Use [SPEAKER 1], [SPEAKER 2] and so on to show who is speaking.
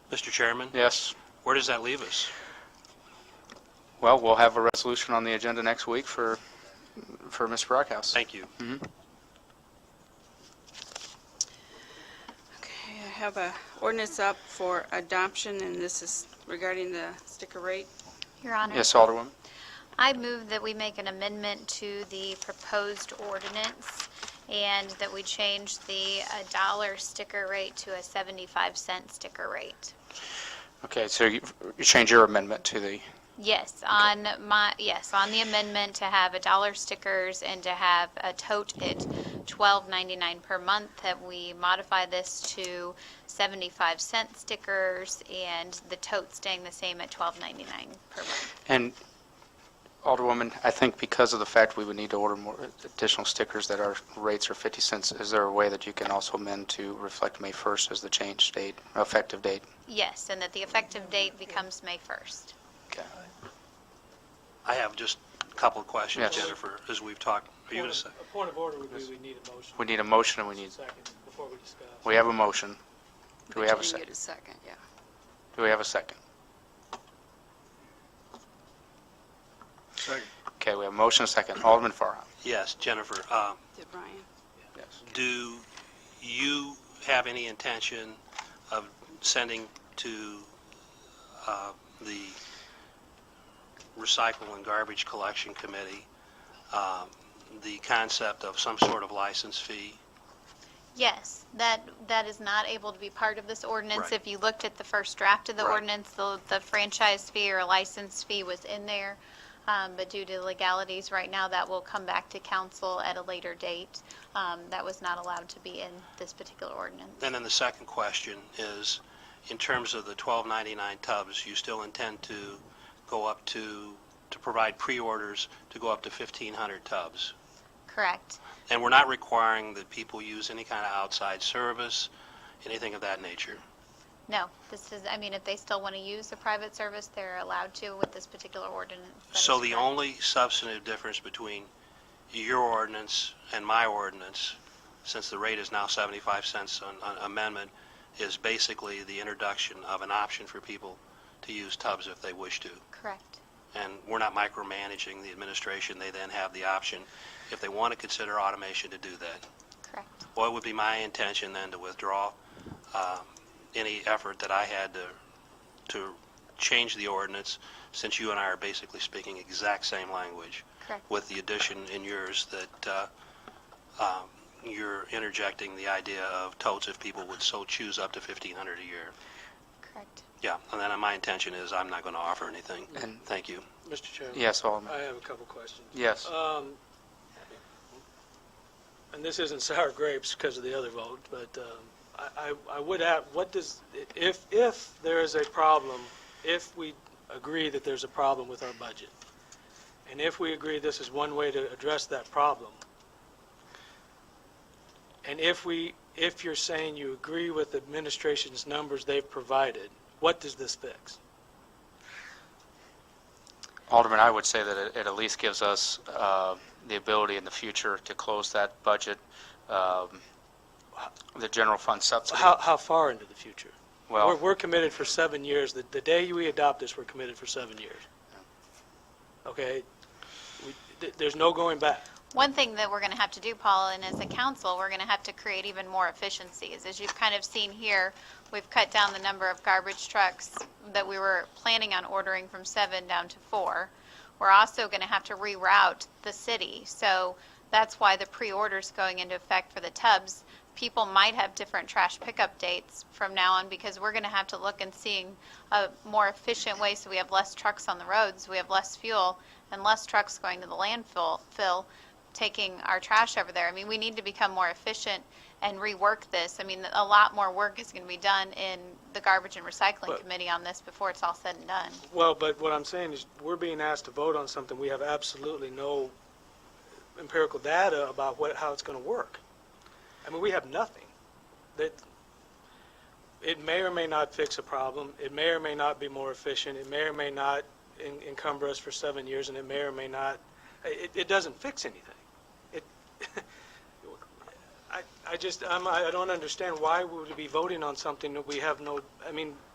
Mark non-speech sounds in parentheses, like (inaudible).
[SPEAKER 1] Mr. Chairman,
[SPEAKER 2] Yes.
[SPEAKER 1] where does that leave us?
[SPEAKER 2] Well, we'll have a resolution on the agenda next week for, for Ms. Brockhouse.
[SPEAKER 1] Thank you.
[SPEAKER 3] Okay, I have a ordinance up for adoption, and this is regarding the sticker rate.
[SPEAKER 4] Your Honor.
[SPEAKER 2] Yes, Alderwoman.
[SPEAKER 4] I move that we make an amendment to the proposed ordinance and that we change the uh, dollar sticker rate to a 75 cent sticker rate.
[SPEAKER 2] Okay, so you you change your amendment to the,
[SPEAKER 4] Yes, on my, yes, on the amendment to have a dollar stickers and to have a tote at 12.99 per month, that we modify this to 75 cent stickers and the tote staying the same at 12.99 per month.
[SPEAKER 2] and Alderwoman, I think because of the fact we would need to order more additional stickers that our rates are 50 cents, is there a way that you can also amend to reflect May 1st as the change date, effective date?
[SPEAKER 4] Yes, and that the effective date becomes May 1st.
[SPEAKER 2] Okay.
[SPEAKER 1] I have just a couple of questions,
[SPEAKER 2] Yes.
[SPEAKER 1] Jennifer, as we've talked. Are you going to say?
[SPEAKER 5] Point of- A point of order would be we need a motion.
[SPEAKER 2] We need a motion and we need,
[SPEAKER 5] Second, before we discuss.
[SPEAKER 2] we have a motion. Do we
[SPEAKER 3] But
[SPEAKER 2] have a
[SPEAKER 3] you
[SPEAKER 2] second?
[SPEAKER 3] didn't get a second, yeah.
[SPEAKER 2] Do we have a second?
[SPEAKER 1] Second.
[SPEAKER 2] Okay, we have a motion, a second. Alderman Farha.
[SPEAKER 1] Yes, Jennifer, uh,
[SPEAKER 3] Did Brian?
[SPEAKER 2] Yes.
[SPEAKER 1] do you have any intention of sending to uh, the Recycle and Garbage Collection Committee um, the concept of some sort of license fee?
[SPEAKER 4] Yes, that, that is not able to be part of this ordinance.
[SPEAKER 1] Right.
[SPEAKER 4] If you looked at the first draft of the
[SPEAKER 1] Right.
[SPEAKER 4] ordinance, the the franchise fee or license fee was in there, Um, but due to legalities right now, that will come back to council at a later date. Um, That was not allowed to be in this particular ordinance.
[SPEAKER 1] And then the second question is, in terms of the 1299 tubs, you still intend to go up to, to provide pre-orders to go up to 1,500 tubs?
[SPEAKER 4] Correct.
[SPEAKER 1] And we're not requiring that people use any kind of outside service, anything of that nature?
[SPEAKER 4] No, this is, I mean, if they still want to use a private service, they're allowed to with this particular ordinance. That
[SPEAKER 1] So
[SPEAKER 4] is
[SPEAKER 1] the
[SPEAKER 4] correct.
[SPEAKER 1] only substantive difference between your ordinance and my ordinance, since the rate is now 75 cents on on amendment, is basically the introduction of an option for people to use tubs if they wish to.
[SPEAKER 4] Correct.
[SPEAKER 1] And we're not micromanaging the administration. They then have the option, if they want to consider automation, to do that.
[SPEAKER 4] Correct.
[SPEAKER 1] Well, it would be my intention then to withdraw um, any effort that I had to, to change the ordinance, since you and I are basically speaking exact same language,
[SPEAKER 4] Correct.
[SPEAKER 1] with the addition in yours that uh, um, you're interjecting the idea of totes if people would so choose up to 1,500 a year.
[SPEAKER 4] Correct.
[SPEAKER 1] Yeah, and then my intention is I'm not going to offer anything.
[SPEAKER 2] And-
[SPEAKER 1] Thank you.
[SPEAKER 5] Mr. Chairman?
[SPEAKER 2] Yes, Alderman.
[SPEAKER 5] I have a couple questions.
[SPEAKER 2] Yes.
[SPEAKER 5] Um, and this isn't (laughs) sour grapes because of the other vote, but, um, I, I, I would add, what does, if, if there is a problem, if we agree that there's a problem with our budget, and if we agree this is one way to address that problem, and if we, if you're saying you agree with the administration's numbers they've provided, what does this fix?
[SPEAKER 2] Alderman, I would say that it it at least gives us uh, the ability in the future to close that budget, um, the general fund subsidy.
[SPEAKER 5] How, how far into the future? We're,
[SPEAKER 2] Well,
[SPEAKER 5] we're committed for seven years. The, the day we adopt this, we're committed for seven years. Okay? We- th- There's no going back.
[SPEAKER 4] One thing that we're going to have to do, Paul, and as a council, we're going to have to create even more efficiencies. As you've kind of seen here, we've cut down the number of garbage trucks that we were planning on ordering from seven down to four. We're also going to have to reroute the city. So that's why the pre-orders going into effect for the tubs. People might have different trash pickup dates from now on because we're going to have to look and seeing a more efficient way so we have less trucks on the roads, we have less fuel, and less trucks going to the landfill, fill, taking our trash over there. I mean, we need to become more efficient and rework this. I mean, a lot more work is going to be done in the garbage and recycling
[SPEAKER 5] But-
[SPEAKER 4] committee on this before it's all said and done.
[SPEAKER 5] Well, but what I'm saying is, we're being asked to vote on something we have absolutely no empirical data about what, how it's going to work. I mean, we have nothing. That, it may or may not fix a problem, it may or may not be more efficient, it may or may not en- encumber us for seven years, and it may or may not, it, it doesn't fix anything. It, (laughs) I, I just, I'm, I don't understand, why would we be voting on something that we have no, I mean,